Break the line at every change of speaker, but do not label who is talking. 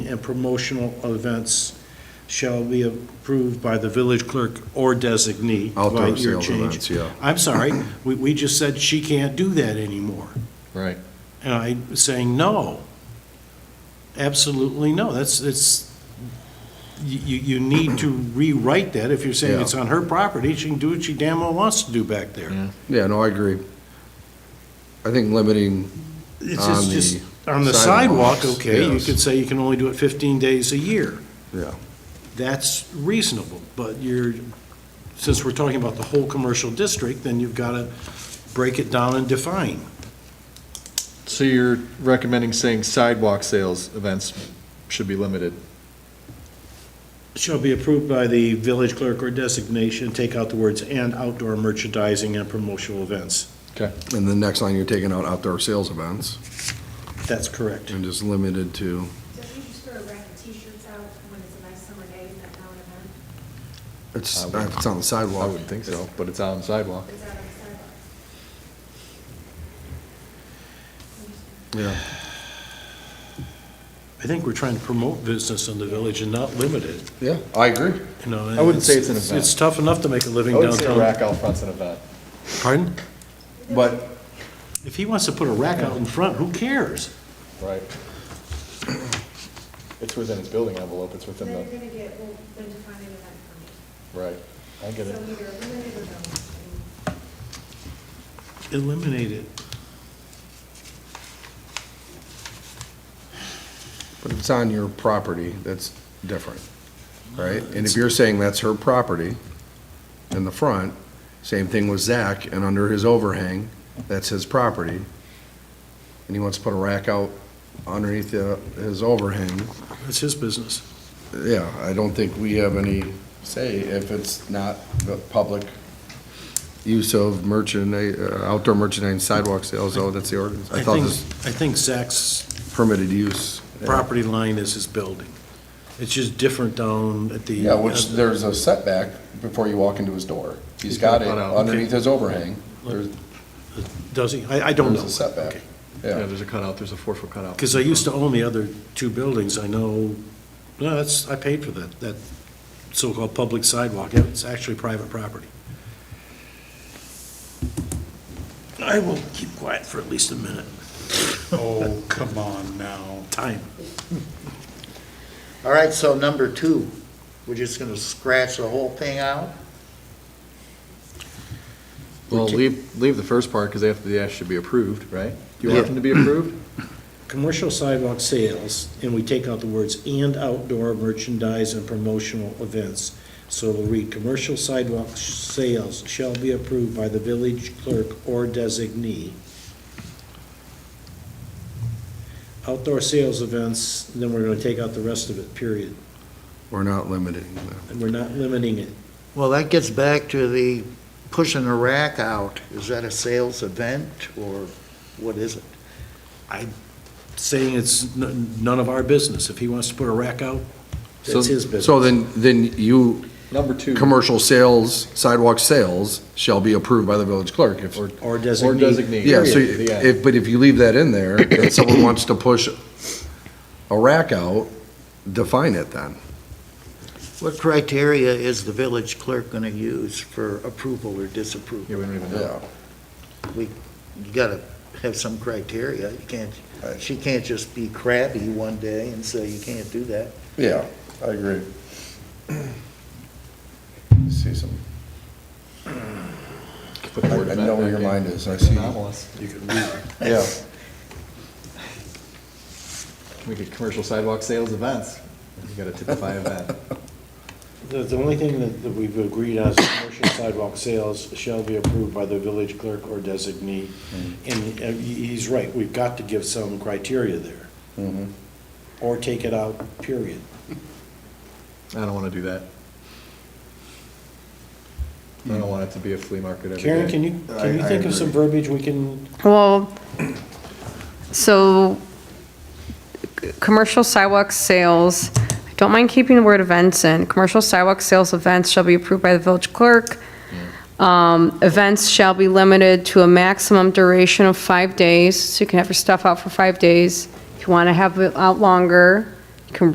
and promotional events shall be approved by the village clerk or designee. by
Outdoor
your
sales
change.
events, yeah.
I'm sorry, we, we just said she can't do that anymore.
Right.
And I'm saying, no, absolutely no, that's, it's, you, you you need to rewrite that, if you're saying
Yeah.
it's on her property, she can do what she damn well wants to do back there.
Yeah.
Yeah, no, I agree. I think limiting,
It's
On
just,
the
just, on the sidewalk,
sidewalks,
okay, you
yes.
could say you can only do it fifteen days a year,
yeah,
that's reasonable, but you're, since we're talking about the whole commercial district, then you've gotta break it down and define.
So you're recommending saying sidewalk sales events should be limited?
Shall be approved by the village clerk or designation, take out the words "and outdoor merchandising and promotional events."
Okay.
and the next line, you're taking out outdoor sales events
That's correct.
and just limited to,
So we just throw a rack of t-shirts out when it's a nice summer day, is that not an event?
it's,
I wouldn't-
it's on the
I
sidewalk.
wouldn't think so, but it's on sidewalk.
Is that on the
Yeah,
sidewalk?
I think we're trying to promote business in the village and not limit it,
yeah, I agree.
you know.
I wouldn't say it's an event.
It's tough enough to make a living
I would say
downtown.
rack out front's an event.
Pardon?
But,
If he wants to put a rack out in front, who cares?
Right. It's within its building envelope, it's
Then
within
you're
the,
gonna get, well, then define an event for me.
right. I get
So
it.
either eliminate or don't. And
Eliminate it.
but if it's on your property, that's different, right? And if you're saying that's her property in the front, same thing with Zach, and under his overhang, that's his property. And he wants to put a rack out underneath the- his overhang,
That's his business.
Yeah, I don't think we have any say if it's not the public use of merchandise, uh, outdoor merchandise and sidewalk sales, oh, that's the ordinance. I
I
thought
think,
this
I think Zach's
permitted use.
property line is his building. It's just different down at the. uh,
Yeah, which there's a setback before you walk into his door. He's got it
He's got it out.
underneath his overhang. There's,
Does he? I, I don't know.
there's a setback.
Okay.
Yeah,
Yeah,
there's a cutout, there's a four-foot cutout.
Because I used to own the other two buildings, I know, no, that's, I paid for that, that so-called public sidewalk, it's actually private property. I will keep quiet for at least a minute,
Oh, come on now.
time.
All right, so number two, we're just gonna scratch the whole thing out?
Well, leave, leave the first part, because they have, to- they should be approved, right? Do you want them to be approved?
Commercial sidewalk sales, and we take out the words "and outdoor merchandise and promotional events." So we'll read, "Commercial sidewalk sh- sales shall be approved by the village clerk or designee." Outdoor sales events, then we're gonna take out the rest of it, period.
we're not limiting them.
And we're not limiting it.
Well, that gets back to the pushing the rack out. Is that a sales event, or what is it?
Saying it's n- none of our business. If he wants to put a rack out, that's his business.
So then, then you
Number two.
commercial sales, sidewalk sales shall be approved by the village clerk. If-
Or
Or
designee.
designate.
Yeah, so,
period, the end.
if, but if you leave that in there, and someone wants to push a rack out, define it then.
What criteria is the village clerk gonna use for approval or disapproval?
Yeah, we don't even know.
You gotta have some criteria. You can't, she can't just be crabby one day and say you can't do that.
Yeah, I agree. See some,
Put the word
I- I
event
know where
back
your
in.
mind is, I see.
Anomalous. You could leave-
yeah.
We could commercial sidewalk sales events. You gotta typify event.
The, the only thing that, that we've agreed on is commercial sidewalk sales shall be approved by the village clerk or designee.
Mm-hmm.
And uh, he- he's right, we've got to give some criteria there.
Mm-hmm.
Or take it out, period.
I don't wanna do that. I don't want it to be a flea market every day.
Karen, can you, can you
I- I
think of some verbiage we can,
Well, so, c- commercial sidewalk sales, I don't mind keeping the word events in. Commercial sidewalk sales events shall be approved by the village clerk. Um, Events shall be limited to a maximum duration of five days, so you can have your stuff out for five days. If you want to have it out longer,